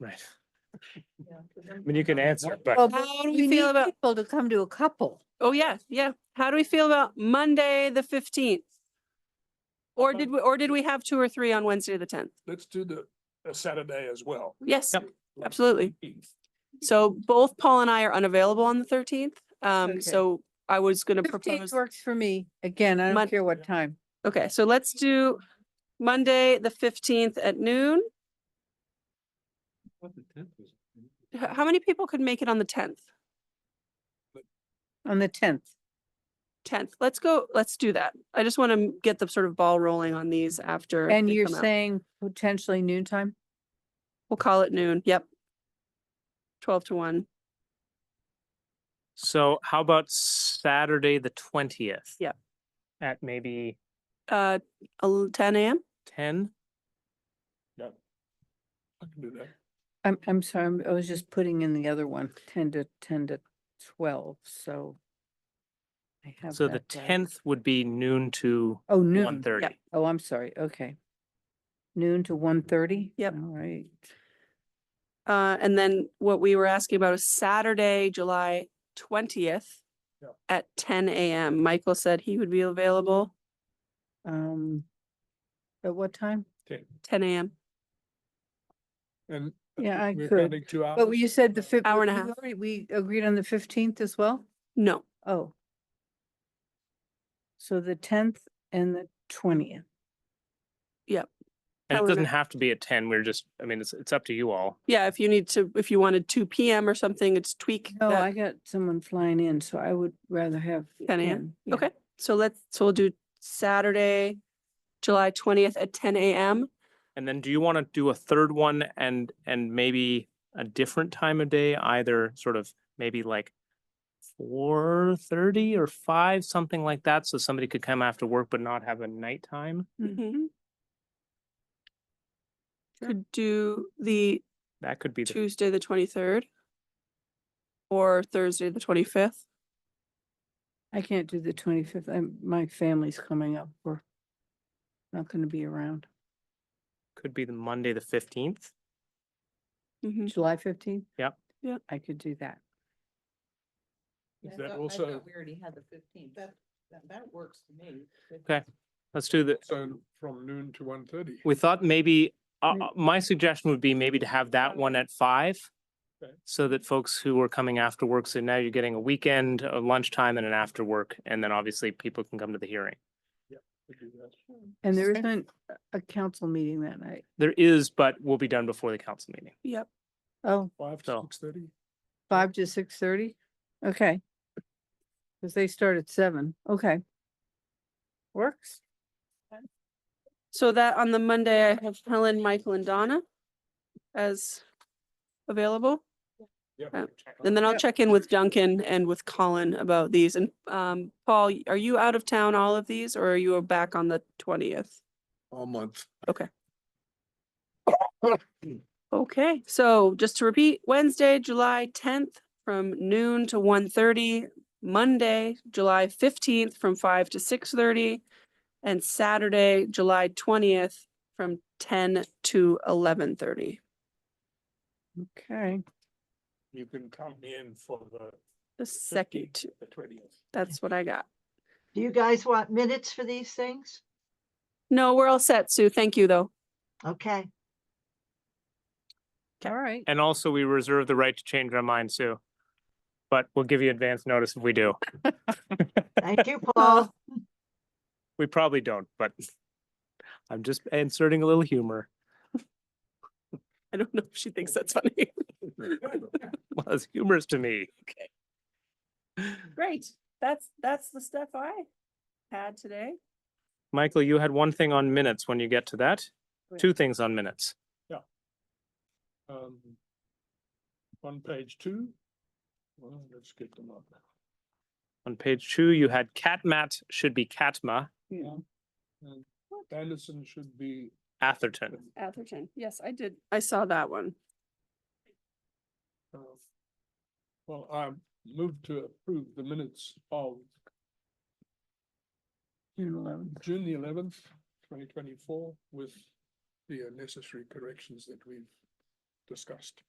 Right. I I mean, you can answer, it, but Well, How do we we need feel about, people to come to a couple. oh, yeah, yeah. How do we feel about Monday, the fifteenth? Or did we, or did we have two or three on Wednesday, the tenth? let's do the, the Saturday as well. Yes, Yep. absolutely. So both Paul and I are unavailable on the thirteenth. Okay. Um, so I was gonna Fifteenth propose, works for me. Again, I Mon- don't care what time. okay, so let's do Monday, the fifteenth at noon. H- How many people could make it on the tenth? On the tenth, Tenth, let's go, let's do that. I just want to get the sort of ball rolling on these after. and they you're come out. saying potentially noontime? We'll call it noon. Yep. Twelve to one. so how about Saturday, the twentieth? Yep. At maybe Uh, el- ten AM? ten? I can do that. I'm, I'm sorry, I'm- I was just putting in the other one, ten to, ten to twelve, so. I have So the that right. tenth would be noon to Oh, one noon. thirty. Oh, I'm sorry, okay. Noon to one thirty? Yep. All right. Uh, and then what we were asking about is Saturday, July twentieth Yep. at ten AM. Michael said he would be available Um, at what time? ten AM. And. uh, Yeah, I we're could, adding two But you hours. said the fif- Hour and a we half. already- We agreed on the fifteenth as well? No, Oh. So the tenth and the twentieth. And it However- doesn't have to be at ten. We're just, I mean, it's, it's up to you all. yeah, if you need to, if you wanted two PM or something, it's tweak. No, that. Oh, I got someone flying in, so I would rather have. 10 a.m. yeah. Okay, so let's, so we'll do Saturday, July twentieth at ten AM. And then do you want to do a third one and, and maybe a different time of day, either sort of maybe like four thirty or five, something like that, so somebody could come after work but not have a nighttime? Mhm. Mm-hmm. Sure. Could do the That could be the Tuesday, the twenty-third. Or Thursday, the twenty-fifth. I can't do the twenty-fifth. I'm, my family's coming up. We're not gonna be around. could be the Monday, the fifteenth. Mm-hmm. July fifteenth? Yep. Yep. I could do that. Is that also, We already had the fifteenth. That, that, that works for me. Okay. Let's do the, so from noon to one thirty? we thought maybe, uh, Mm. uh, my suggestion would be maybe to have that one at five. Okay. So that folks who are coming after work, so now you're getting a weekend, a lunchtime and an after work, and then obviously people can come to the hearing. And there isn't a- a council meeting that night. There is, but will be done before the council meeting. Yep, Oh, Five to So- six thirty? five to six thirty? Okay. Cause they start at seven. Okay. Works. so that on the Monday, I have Helen, Michael and Donna as available. Uh, Oh. And then I'll Yep. check in with Duncan and with Colin about these. And um, Paul, y- are you out of town all of these or are you back on the twentieth? All month. Okay, so just to repeat, Wednesday, July tenth from noon to 1:30. Monday, July fifteenth from five to six thirty, and Saturday, July twentieth from ten to eleven thirty. Okay. You can come in for the The second, the twentieth. that's what I got. Do you guys want minutes for these things? No, we're all set, Sue. Thank you, though. Okay. All right. And also, we reserve the right to change our mind, Sue. But we'll give you advance notice if we do. Thank you, Paul. We probably don't, but I'm just inserting a little humor. I don't know if she thinks that's funny. Well, it's humorous to me. Great. That's, that's the stuff I had today. Michael, you had one thing on minutes when you get to that. Right. Two things on minutes. Um, On page two. Well, let's get them up. On page two, you had Catmat should be Catma And Anderson should be. Atherton. Atherton. Yes, I did. I saw that one. uh, Well, I moved to approve the minutes of June eleventh. June the eleventh, twenty twenty-four with the uh, necessary corrections that we've discussed.